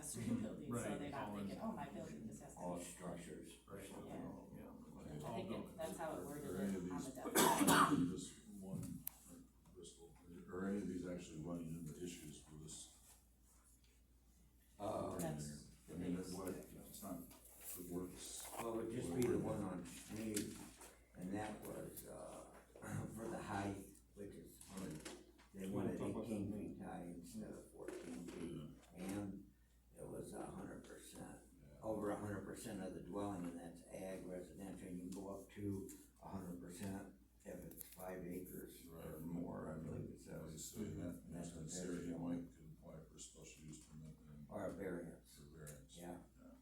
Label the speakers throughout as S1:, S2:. S1: building, so
S2: Right,
S1: they're not
S2: all in.
S1: thinking, oh, my building just has to.
S3: all structures or
S2: Right.
S3: something.
S1: Yeah.
S2: All
S1: I think it-
S2: buildings.
S1: that's how it worded
S4: Are any of
S1: it on
S4: these,
S1: the definition.
S4: this um, one, or Bristol, are any of these actually running into issues with this?
S3: Uh,
S1: That's
S4: I mean, it what, it's not, it works.
S3: well, it would just be the one on Schneed, and that was, uh, for the height, which is, on- they wanted eighteen feet high instead of fourteen feet. And it was a hundred percent, over a hundred percent of the dwelling, and that's ag residential, and you go up to a hundred percent if it's five acres or
S4: Right.
S3: more, I believe it
S4: I was
S3: says,
S4: saying that, and that's
S3: That's a
S4: considered, you
S3: variable.
S4: might could apply for special use permit and
S3: or a variance,
S4: for variance.
S3: yeah.
S4: Yeah.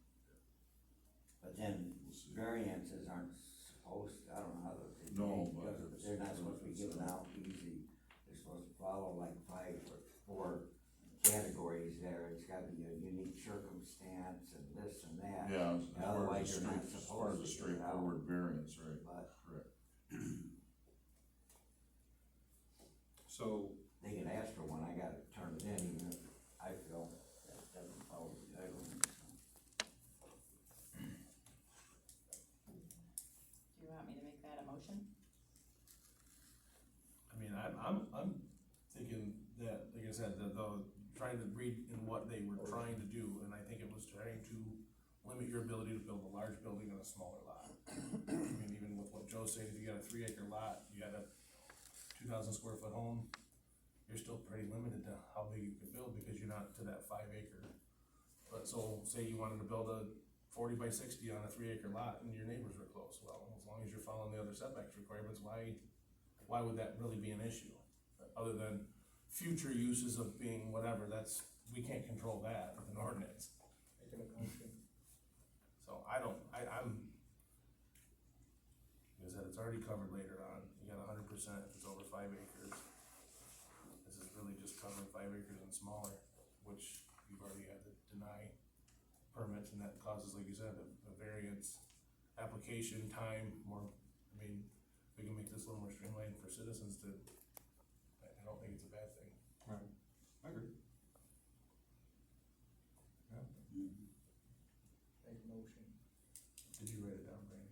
S3: But then
S4: We'll see.
S3: variances aren't supposed, I don't know how those. are
S4: No,
S3: made,
S4: but
S3: because
S4: it's-
S3: They're not supposed to be given out easy, they're supposed to follow like five or four categories there, it's gotta be a unique circumstance and this and that.
S4: Yeah, as far
S3: Otherwise,
S4: as a
S3: you're
S4: straight,
S3: not
S4: as far
S3: supposed to
S4: as a
S3: get out.
S4: straightforward variance, right,
S3: But
S4: correct. So,
S3: they can ask for one, I gotta turn it in, even if I feel that doesn't follow the guidelines.
S1: Do you want me to make that a motion?
S2: I mean, I'm, I'm, I'm thinking that, like I said, that the, trying to read in what they were trying to do, and I think it was trying to limit your ability to build a large building on a smaller lot. I mean, even with what Joe's saying, if you got a three acre lot, you got a two thousand square foot home, you're still pretty limited to how big you can build, because you're not to that five acre. But so, say you wanted to build a forty by sixty on a three acre lot and your neighbors were close, well, as long as you're following the other setbacks requirements, why why would that really be an issue? Other than future uses of being whatever, that's, we can't control that with an ordinance. So I don't, I, I'm, like I said, it's already covered later on, you got a hundred percent if it's over five acres. This is really just covering five acres and smaller, which you've already had to deny permits, and that causes, like you said, a, a variance, application time, more, I mean, we can make this a little more streamlined for citizens to, I, I don't think it's a bad thing.
S5: I agree.
S2: Did you write it down, Brandon?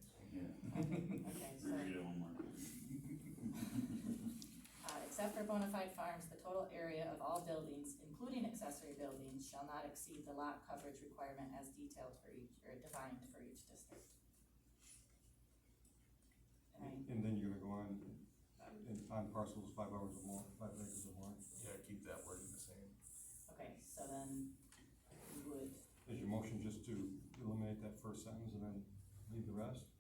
S1: Okay, so. Uh, except for bona fide farms, the total area of all buildings, including accessory buildings, shall not exceed the lot coverage requirement as detailed for each, or defined for each district. And I-
S5: And then you're gonna go on, and find parcels five hours or more, five acres or more,
S2: Yeah, keep that wording the same.
S1: okay, so then we would,
S5: is your motion just to eliminate that first sentence and then leave the rest?